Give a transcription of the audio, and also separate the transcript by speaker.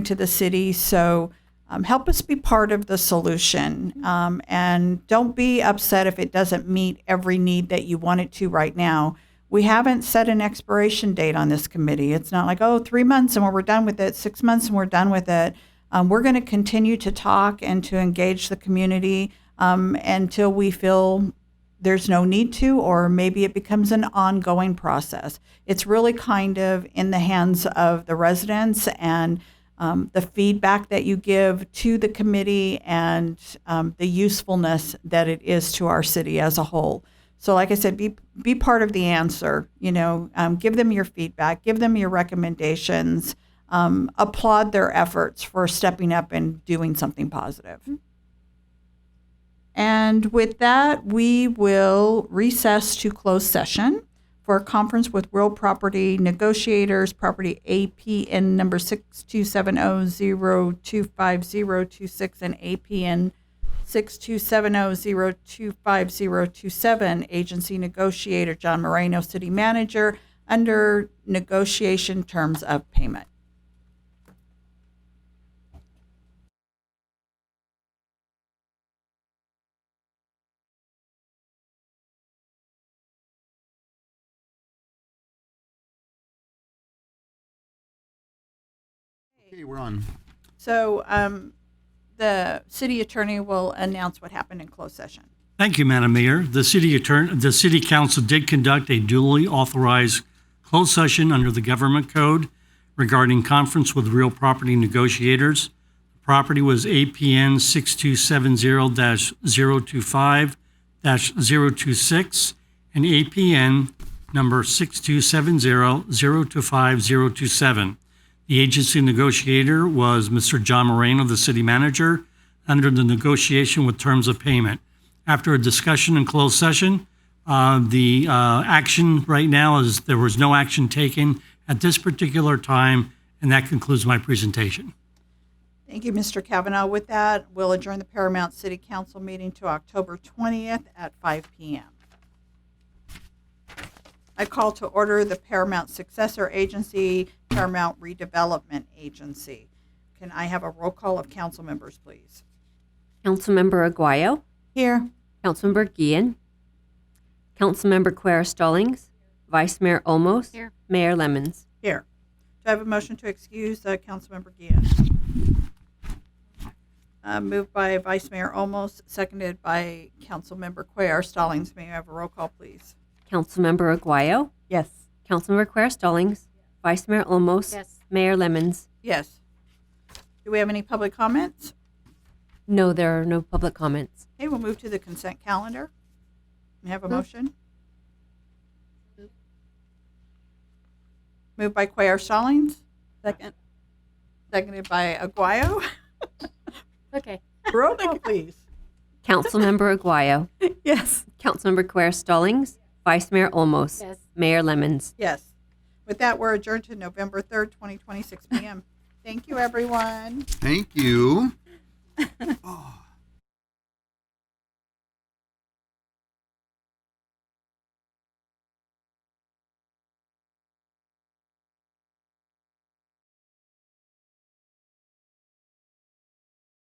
Speaker 1: to the city. So um, help us be part of the solution. Um, and don't be upset if it doesn't meet every need that you want it to right now. We haven't set an expiration date on this committee. It's not like, oh, three months and we're done with it, six months and we're done with it. Um, we're going to continue to talk and to engage the community um, until we feel there's no need to, or maybe it becomes an ongoing process. It's really kind of in the hands of the residents and um, the feedback that you give to the committee and um, the usefulness that it is to our city as a whole. So, like I said, be be part of the answer. You know, um, give them your feedback, give them your recommendations, um, applaud their efforts for stepping up and doing something positive. And with that, we will recess to closed session for a conference with real property negotiators, property APN number 6270025026 and APN 6270025027, agency negotiator John Moreno, city manager, under negotiation terms of payment.
Speaker 2: Okay, we're on.
Speaker 1: So um, the city attorney will announce what happened in closed session.
Speaker 3: Thank you, Madam Mayor. The city attorney, the city council did conduct a duly authorized closed session under the government code regarding conference with real property negotiators. Property was APN 6270-025-026 and APN number 6270-025-027. The agency negotiator was Mr. John Moreno, the city manager, under the negotiation with terms of payment. After a discussion in closed session, uh, the uh, action right now is there was no action taken at this particular time, and that concludes my presentation.
Speaker 1: Thank you, Mr. Kavanaugh. With that, we'll adjourn the Paramount City Council meeting to October 20th at 5 p.m. I call to order the Paramount Successor Agency, Paramount Redevelopment Agency. Can I have a roll call of council members, please?
Speaker 4: Councilmember Aguayo,
Speaker 1: Here.
Speaker 4: Councilmember Guillen, Councilmember Quer Stallings, Vice Mayor Olmos, Mayor Lemons.
Speaker 1: Here. Do I have a motion to excuse uh, Councilmember Gian? Uh, Moved by Vice Mayor Olmos, seconded by Councilmember Cuellar Stallings. May I have a roll call, please?
Speaker 4: Councilmember Aguayo,
Speaker 1: Yes.
Speaker 4: Councilmember Quer Stallings, Vice Mayor Olmos, Mayor Lemons.
Speaker 1: Yes. Do we have any public comments?
Speaker 4: No, there are no public comments.
Speaker 1: Okay, we'll move to the consent calendar. May I have a motion? Moved by Cuellar Stallings. Second. Seconded by Aguayo.
Speaker 5: Okay.
Speaker 1: Roll call, please.
Speaker 4: Councilmember Aguayo,
Speaker 1: Yes.
Speaker 4: Councilmember Quer Stallings, Vice Mayor Olmos,
Speaker 5: Yes.
Speaker 4: Mayor Lemons.
Speaker 1: Yes. With that, we're adjourned to November 3rd, 2026 p.m. Thank you, everyone.
Speaker 2: Thank you.